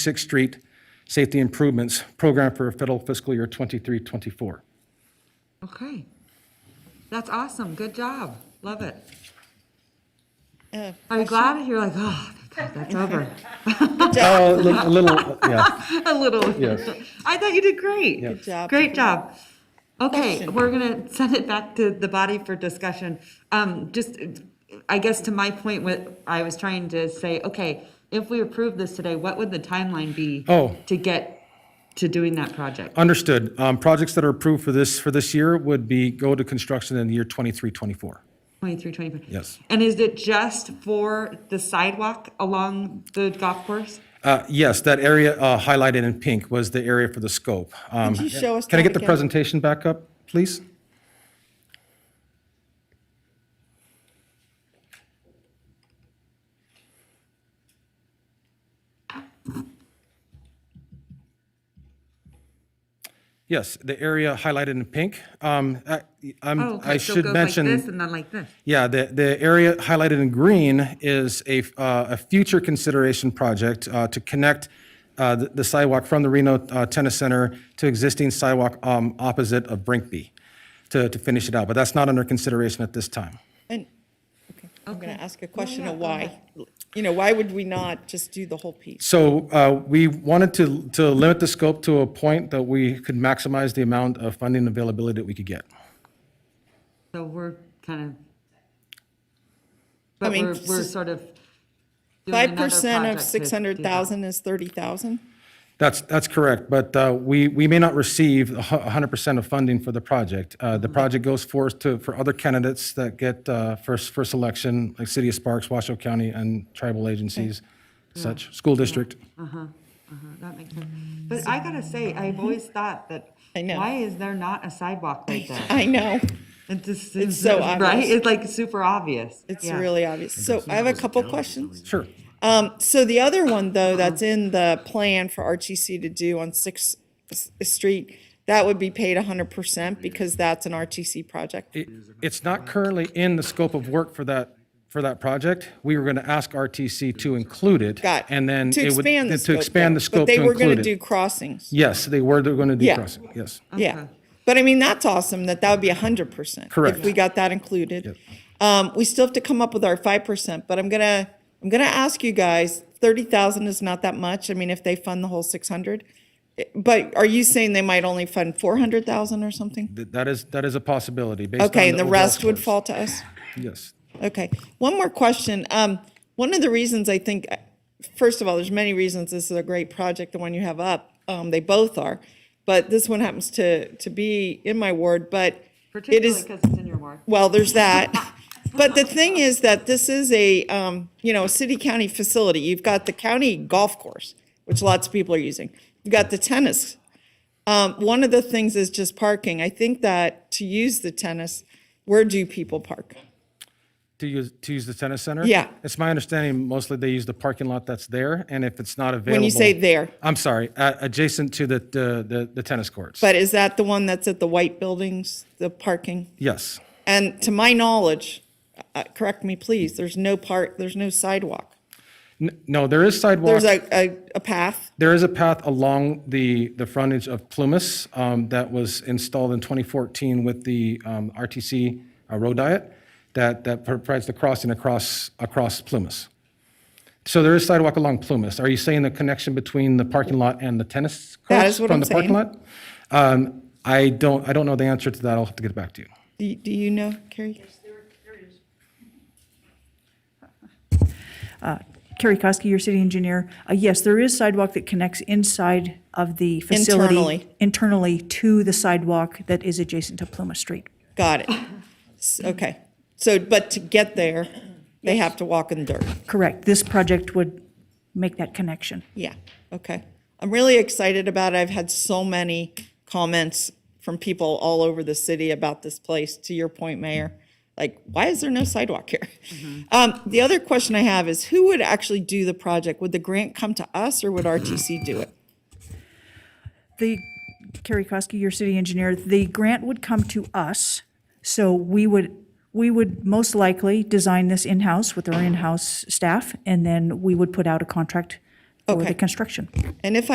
Sixth Street Safety Improvements Program for federal fiscal year 23, 24. Okay. That's awesome. Good job. Love it. Uh, Are you glad? You're like, oh, thank God, that's over. Oh, a little- a little, yeah, A little. Yes. I thought you did great. Good job. Great job. Okay, Question. we're gonna send it back to the body for discussion. Um, just, I guess to my point with, I was trying to say, okay, if we approve this today, what would the timeline be? Oh. To get to doing that project? understood. Um, Projects that are approved for this, for this year would be, go to construction in the year 23, 24. 23, 24? Yes. And is it just for the sidewalk along the golf course? Uh, Yes, that area uh, highlighted in pink was the area for the scope. Um, Could you show us Can I that get the again? presentation back up, please? Yes, the area highlighted in pink. Um, I Oh, I'm- okay, I so should it goes mention. Like this and then like this. Yeah, the, the area highlighted in green is a, uh, a future consideration project uh, to connect uh, the the sidewalk from the Reno uh, Tennis Center to existing sidewalk um, opposite of Brinkby to, to finish it out, but that's not under consideration at this time. And, okay, I'm going to ask a question of why. You know, why would we not just do the whole piece? So uh, we wanted to, to limit the scope to a point that we could maximize the amount of funding availability that we could get. So we're kind of, but mean, we're, we're s- sort of. doing another Five percent project of to do six hundred thousand is thirty thousand? That's, that's correct, but uh, we, we may not receive a hu- 100% of funding for the project. Uh, Mm-hmm. The project goes forth to, for other candidates that get uh, first, first selection, like City of Sparks, Washoe County, and tribal agencies, such, school district. Mm-hmm. that. Uh-huh, That makes sense. But I gotta say, I've always thought that, I know. why is there not a sidewalk right there? I know, It just It's seems, so right? obvious. It's like super obvious. it's Yeah. really obvious. So I have a couple questions. Sure. Um, so the other one, though, that's in the plan for RTC to do on Sixth S- Street, that would be paid hundred percent because that's an RTC project. It- It's not currently in the scope of work for that, for that project. We were going to ask RTC to include it. Got it. And then. To it would- expand the To scope, expand though. the scope But to they were going include to do it. crossings. Yes, they were, they're going to do Yeah. crossing, yes. Yeah, Okay. but I mean, that's awesome, that that would be hundred percent. Correct. If we got that included. Um, we still have to come up with our five percent, but I'm gonna, I'm gonna ask you guys, thirty thousand is not that much, I mean, if they fund the whole six hundred. eh, But are you saying they might only fund four hundred thousand or something? Th- That is, that is a possibility based on. Okay, and the overall rest would scores. fall to us? Yes. Okay, one more question. Um, one of the reasons I think, first of all, there's many reasons this is a great project, the one you have up, um, they both are. But this one happens to, to be in my ward, but it Particularly is, because it's in your ward. well, there's that. But the thing is that this is a, um, you know, a city-county facility. You've got the county golf course, which lots of people are using. You've got the tennis. Um, one of the things is just parking. I think that to use the tennis, where do people park? To use, to use the tennis center? Yeah. It's my understanding mostly they use the parking lot that's there, and if it's not available. When you say there. I'm sorry, uh, adjacent to the, the, the- the tennis courts. But is that the one that's at the white buildings, the parking? Yes, And to my knowledge, uh, correct me please, there's no part, there's no sidewalk. N- no, there is sidewalk, There's a, a, a path. there is a path along the, the frontage of Plumas um, that was installed in 2014 with the um, RTC uh, road diet that, that provides the crossing across, across Plumas. So there is sidewalk along Plumas. Are you saying the connection between the parking lot and the tennis courts? That is what I'm From the parking lot? Um, I don't, I don't know the answer to that. I'll have to get back to you. Do, you- do you know, Carrie? Kerry Koski, your city engineer. Uh, Yes, there is sidewalk that connects inside of the facility. Internally. Internally to the sidewalk that is adjacent to Pluma Street. Got it. S- Okay. So, but to get there, they have to walk in dirt. Correct. This project would make that connection. Yeah, okay. I'm really excited about it. I've had so many comments from people all over the city about this place, to your point, Mayor. Like, why is there no sidewalk here? Um, the other question I have is who would actually do the project? Would the grant come to us or would RTC do it? The, Kerry Koski, your city engineer, the grant would come to us, so we would, we would most likely design this in-house with our in-house staff, and then we would put out a contract for the Okay. construction. And if